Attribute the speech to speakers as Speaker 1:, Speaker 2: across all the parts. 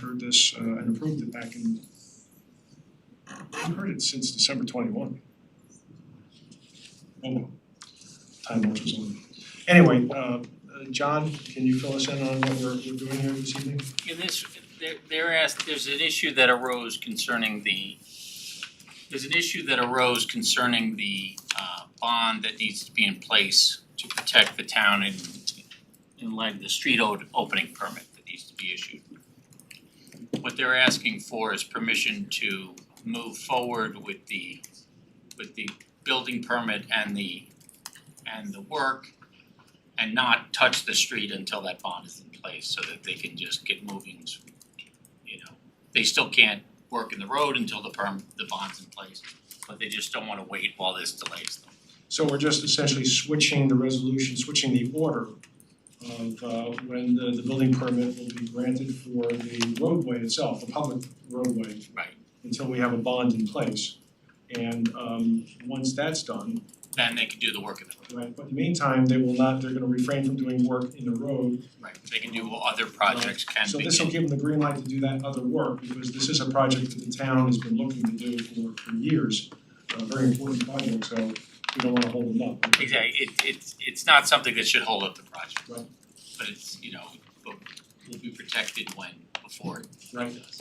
Speaker 1: heard this uh, and approved it back in, I've heard it since December twenty-one. Oh, Time marches on. Anyway, uh, uh, John, can you fill us in on what we're, we're doing here this evening?
Speaker 2: In this, they're they're asked, there's an issue that arose concerning the, there's an issue that arose concerning the uh bond that needs to be in place to protect the town in in light of the street o- opening permit that needs to be issued. What they're asking for is permission to move forward with the with the building permit and the and the work and not touch the street until that bond is in place so that they can just get moving. You know, they still can't work in the road until the perm, the bond's in place, but they just don't wanna wait while this delays them.
Speaker 1: So we're just essentially switching the resolution, switching the order of uh, when the, the building permit will be granted for the roadway itself, the public roadway.
Speaker 2: Right.
Speaker 1: Until we have a bond in place. And um, once that's done,
Speaker 2: Then they can do the work in the road,
Speaker 1: right, but in the meantime, they will not, they're gonna refrain from doing work in the road.
Speaker 2: right? They can do what other projects can
Speaker 1: So
Speaker 2: be.
Speaker 1: this will give them the green light to do that other work, because this is a project that the town has been looking to do for, for years. A very important project, so we don't wanna hold them up.
Speaker 2: Exactly, it it's it's not something that should hold up the project.
Speaker 1: Right.
Speaker 2: But it's, you know, but will be protected when, before it
Speaker 1: Right.
Speaker 2: does.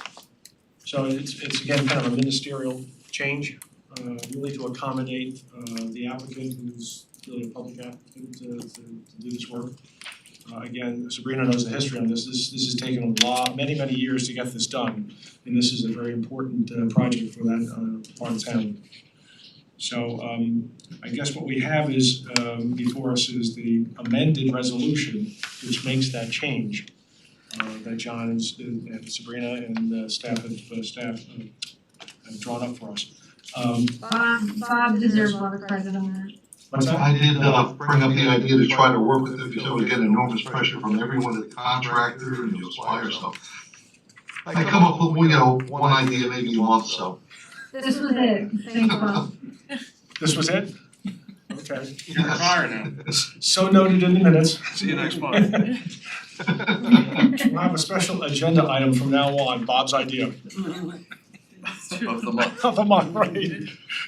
Speaker 1: So it's, it's again kind of a ministerial change, uh, really to accommodate, uh, the applicant who's really a public applicant to, to, to do this work. Uh, again, Sabrina knows the history on this, this, this has taken a lot, many, many years to get this done, and this is a very important, uh, project for that, uh, part of town. So, um, I guess what we have is, um, before us is the amended resolution, which makes that change uh that John and S- and Sabrina and uh staff have uh staff uh, have drawn up for us. Um
Speaker 3: Bob, Bob deserves a lot of credit on that.
Speaker 1: what's that?
Speaker 4: I did uh bring up the idea to try to work with them because I was getting enormous pressure from everyone, the contractor and the supplier, so. I come up with, you know, one idea maybe a month, so.
Speaker 3: This was it, thank Bob.
Speaker 1: This was it? Okay,
Speaker 5: You're in the fire now.
Speaker 1: so noted in the minutes.
Speaker 5: See you next month.
Speaker 1: We'll have a special agenda item from now on, Bob's idea
Speaker 5: Of the month.
Speaker 1: of the month, right?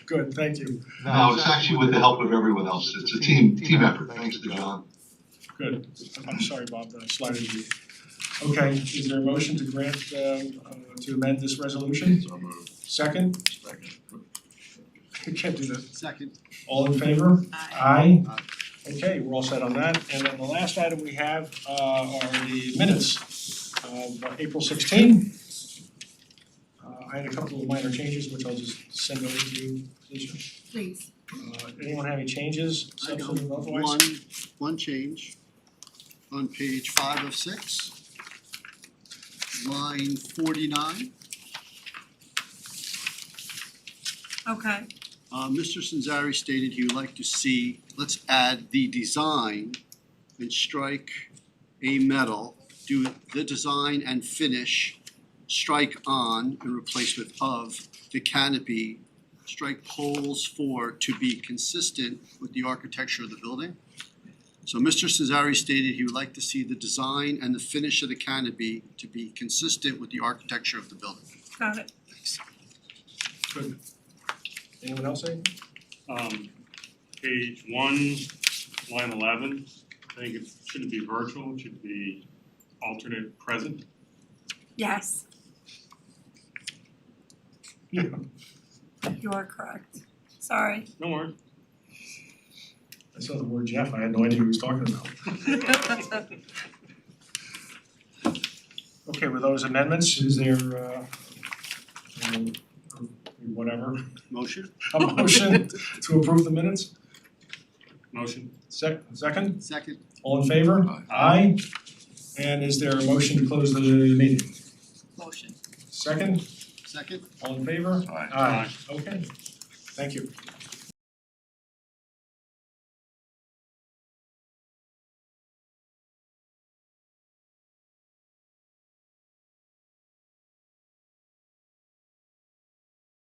Speaker 1: Good, thank you,
Speaker 4: No, it's actually with the help of everyone else. It's a team, team effort. Thanks to John.
Speaker 1: good. I'm sorry, Bob, that I slighted you. Okay, is there a motion to grant um uh to amend this resolution?
Speaker 5: So moved.
Speaker 1: Second,
Speaker 5: Second.
Speaker 1: you can't do that.
Speaker 6: Second.
Speaker 1: All in favor? Aye.
Speaker 6: Aye.
Speaker 1: Okay, we're all set on that. And then the last item we have uh are the minutes of uh, April sixteen. Uh I had a couple of minor changes, which I'll just send over to you, Lisa.
Speaker 3: Please.
Speaker 1: Uh anyone have any changes,
Speaker 6: I know.
Speaker 1: substantive or otherwise?
Speaker 6: One, one change on page five of six. Line forty-nine,
Speaker 3: Okay.
Speaker 6: uh, Mr. Sanzari stated he would like to see, let's add the design and strike a metal, do the design and finish, strike on and replace with of the canopy, strike poles for to be consistent with the architecture of the building. So Mr. Cesare stated he would like to see the design and the finish of the canopy to be consistent with the architecture of the building.
Speaker 3: Got it.
Speaker 1: Good. Anyone else say?
Speaker 7: Um, page one, line eleven, I think it shouldn't be virtual, it should be alternate present.
Speaker 8: Yes,
Speaker 1: Yeah.
Speaker 8: you are correct. Sorry.
Speaker 7: No worries.
Speaker 1: I saw the word Jeff, I had no idea who he was talking about. Okay, with those amendments, is there uh um, or whatever,
Speaker 6: Motion?
Speaker 1: a motion to approve the minutes?
Speaker 7: Motion.
Speaker 1: Sec- second,
Speaker 6: Second.
Speaker 1: all in favor?
Speaker 5: Aye.
Speaker 1: Aye. And is there a motion to close the meeting?
Speaker 8: Motion.
Speaker 1: Second,
Speaker 6: Second?
Speaker 1: all in favor?
Speaker 5: Aye.
Speaker 1: Aye, okay, thank you.